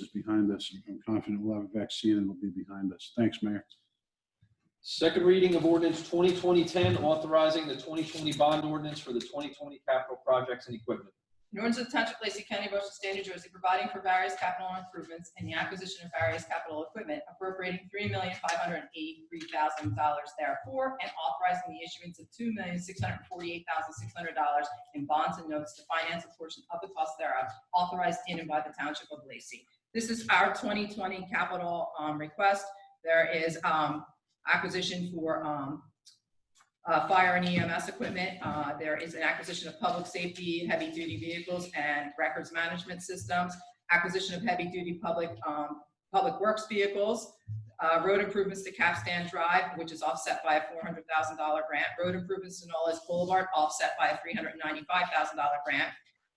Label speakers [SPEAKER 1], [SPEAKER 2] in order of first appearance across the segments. [SPEAKER 1] is behind us. I'm confident we'll have a vaccine and it'll be behind us. Thanks, Mayor.
[SPEAKER 2] Second reading of ordinance 2020-10, authorizing the 2020 bond ordinance for the 2020 capital projects and equipment.
[SPEAKER 3] In order to the Township of Lacey County, Ocean State, New Jersey, providing for various capital improvements and the acquisition of various capital equipment, appropriating three million five hundred and eighty-three thousand dollars therefore, and authorizing the issuance of two million six hundred and forty-eight thousand six hundred dollars in bonds and notes to finance a portion of the cost thereof, authorized in and by the Township of Lacey. This is our twenty-twenty capital, um, request. There is, um, acquisition for, um, uh, fire and EMS equipment. Uh, There is an acquisition of public safety, heavy-duty vehicles, and records management systems, acquisition of heavy-duty public, um, public works vehicles, uh, road improvements to Capstan Drive, which is offset by a $400,000 grant, road improvements to Nolles Boulevard, offset by a $395,000 grant,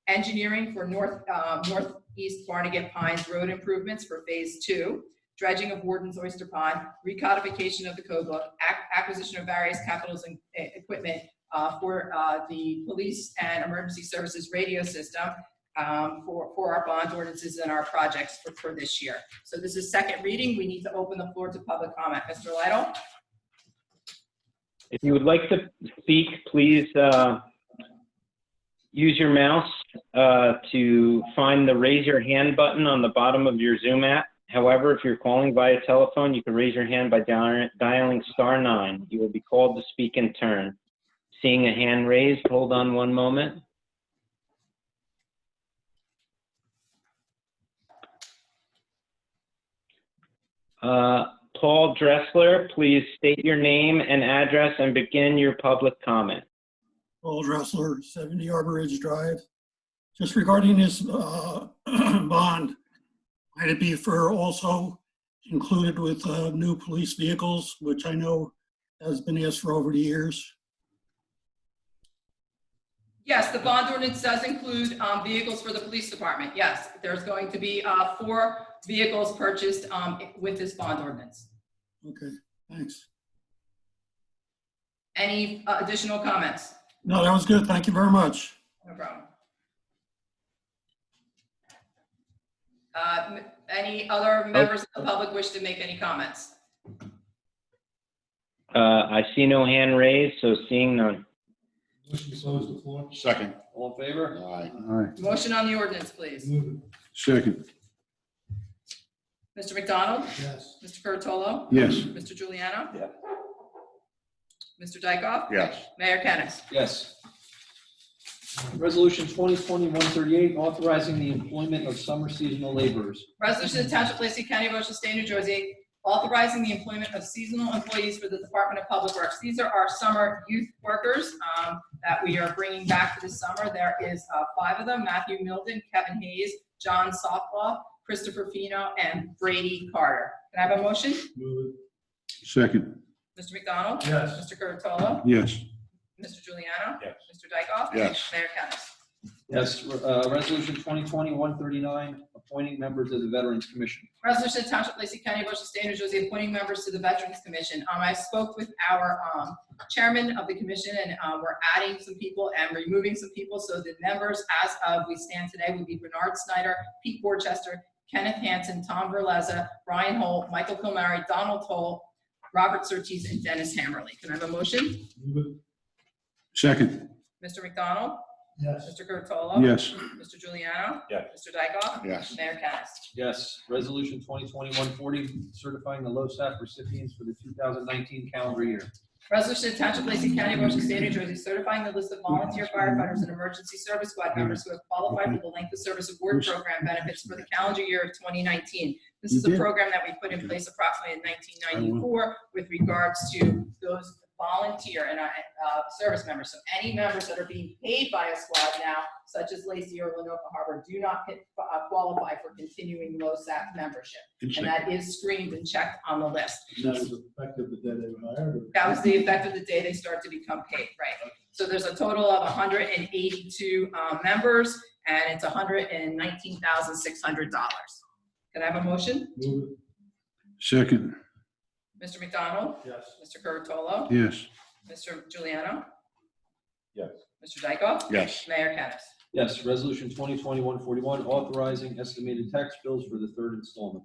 [SPEAKER 3] engineering for north, uh, northeast Barnegat Pines road improvements for Phase Two, dredging of Warden's Oyster Pond, recodification of the code book, ac- acquisition of various capitals and eh, equipment uh, for uh, the police and emergency services radio system um, for, for our bond ordinances and our projects for, for this year. So this is second reading. We need to open the floor to public comment. Mr. Lidle?
[SPEAKER 4] If you would like to speak, please uh, use your mouse uh, to find the raise your hand button on the bottom of your Zoom app. However, if you're calling via telephone, you can raise your hand by dial- dialing star nine. You will be called to speak in turn. Seeing a hand raised, hold on one moment. Uh, Paul Dressler, please state your name and address and begin your public comment.
[SPEAKER 5] Paul Dressler, 70 Arbor Ridge Drive. Just regarding this uh, bond, might it be for also included with uh, new police vehicles, which I know has been asked for over the years?
[SPEAKER 3] Yes, the bond ordinance does include um, vehicles for the police department. Yes, there's going to be uh, four vehicles purchased um, with this bond ordinance.
[SPEAKER 5] Okay, thanks.
[SPEAKER 3] Any uh, additional comments?
[SPEAKER 5] No, that was good. Thank you very much.
[SPEAKER 3] No problem. Uh, m- Any other members of the public wish to make any comments?
[SPEAKER 4] Uh, I see no hand raised, so seeing none.
[SPEAKER 6] Motion to close the floor?
[SPEAKER 7] Second.
[SPEAKER 2] All in favor?
[SPEAKER 7] Aye.
[SPEAKER 1] Aye.
[SPEAKER 3] Motion on the ordinance, please.
[SPEAKER 6] Move
[SPEAKER 1] Second,
[SPEAKER 3] Mr. McDonald?
[SPEAKER 6] it, yes.
[SPEAKER 3] Mr. Curatolo?
[SPEAKER 1] yes.
[SPEAKER 3] Mr. Giuliano,
[SPEAKER 2] Yeah.
[SPEAKER 3] Mr. Dykoff?
[SPEAKER 7] Yes.
[SPEAKER 3] Mayor Kennas?
[SPEAKER 2] Yes. Resolution 2020-138, authorizing the employment of summer seasonal laborers.
[SPEAKER 3] Resolution to Township of Lacey County, Ocean State, New Jersey, authorizing the employment of seasonal employees for the Department of Public Works. These are our summer youth workers um, that we are bringing back for the summer. There is uh, five of them, Matthew Milden, Kevin Hayes, John Softlaw, Christopher Fino, and Brady Carter. Can I have a motion?
[SPEAKER 6] Move
[SPEAKER 1] Second,
[SPEAKER 3] Mr. McDonald?
[SPEAKER 6] it, yes.
[SPEAKER 3] Mr. Curatolo?
[SPEAKER 1] yes.
[SPEAKER 3] Mr. Juliano?
[SPEAKER 7] Yes.
[SPEAKER 3] Mr. Dykoff?
[SPEAKER 7] Yes.
[SPEAKER 3] Mayor Kennas?
[SPEAKER 2] Yes, uh, resolution 2020-139, appointing members of the Veterans Commission.
[SPEAKER 3] Resolution to Township of Lacey County, Ocean State, New Jersey, appointing members to the Veterans Commission. Um, I spoke with our, um, chairman of the commission and, uh, we're adding some people and removing some people. So the members as of we stand today would be Bernard Snyder, Pete Borchester, Kenneth Hansen, Tom Verleza, Ryan Holt, Michael Kilmary, Donald Toll, Robert Surtees, and Dennis Hammerly. Can I have a motion?
[SPEAKER 6] Move it,
[SPEAKER 1] Second,
[SPEAKER 3] Mr. McDonald?
[SPEAKER 6] yes.
[SPEAKER 3] Mr. Curatolo?
[SPEAKER 1] yes.
[SPEAKER 3] Mr. Juliano?
[SPEAKER 7] Yes.
[SPEAKER 3] Mr. Dykoff?
[SPEAKER 7] Yes.
[SPEAKER 3] Mayor Kennas?
[SPEAKER 2] Yes, resolution 2020-140, certifying the LoSAP recipients for the 2019 calendar year.
[SPEAKER 3] Resolution to Township of Lacey County, Ocean State, New Jersey, certifying the list of volunteer firefighters and emergency service squad members who have qualified for the length of service award program benefits for the calendar year of 2019. This is a program that we put in place approximately in 1994 with regards to those volunteer and uh, uh, service members. So any members that are being paid by a squad now, such as Lacey or Lenoka Harbor, do not get- uh, qualify for continuing LoSAP membership. And that is screened and checked on the list.
[SPEAKER 6] And that was effective the day they were hired? or-
[SPEAKER 3] That was the effect of the day they start to become paid, right? So there's a total of 182 uh, members, and it's $119,600. Can I have a motion?
[SPEAKER 6] Move
[SPEAKER 1] Second,
[SPEAKER 3] Mr. McDonald?
[SPEAKER 6] it, yes.
[SPEAKER 3] Mr. Curatolo?
[SPEAKER 1] yes.
[SPEAKER 3] Mr. Juliano?
[SPEAKER 7] Yes.
[SPEAKER 3] Mr. Dykoff?
[SPEAKER 7] Yes.
[SPEAKER 3] Mayor Kennas?
[SPEAKER 2] Yes, resolution 2021-41, authorizing estimated tax bills for the third installment.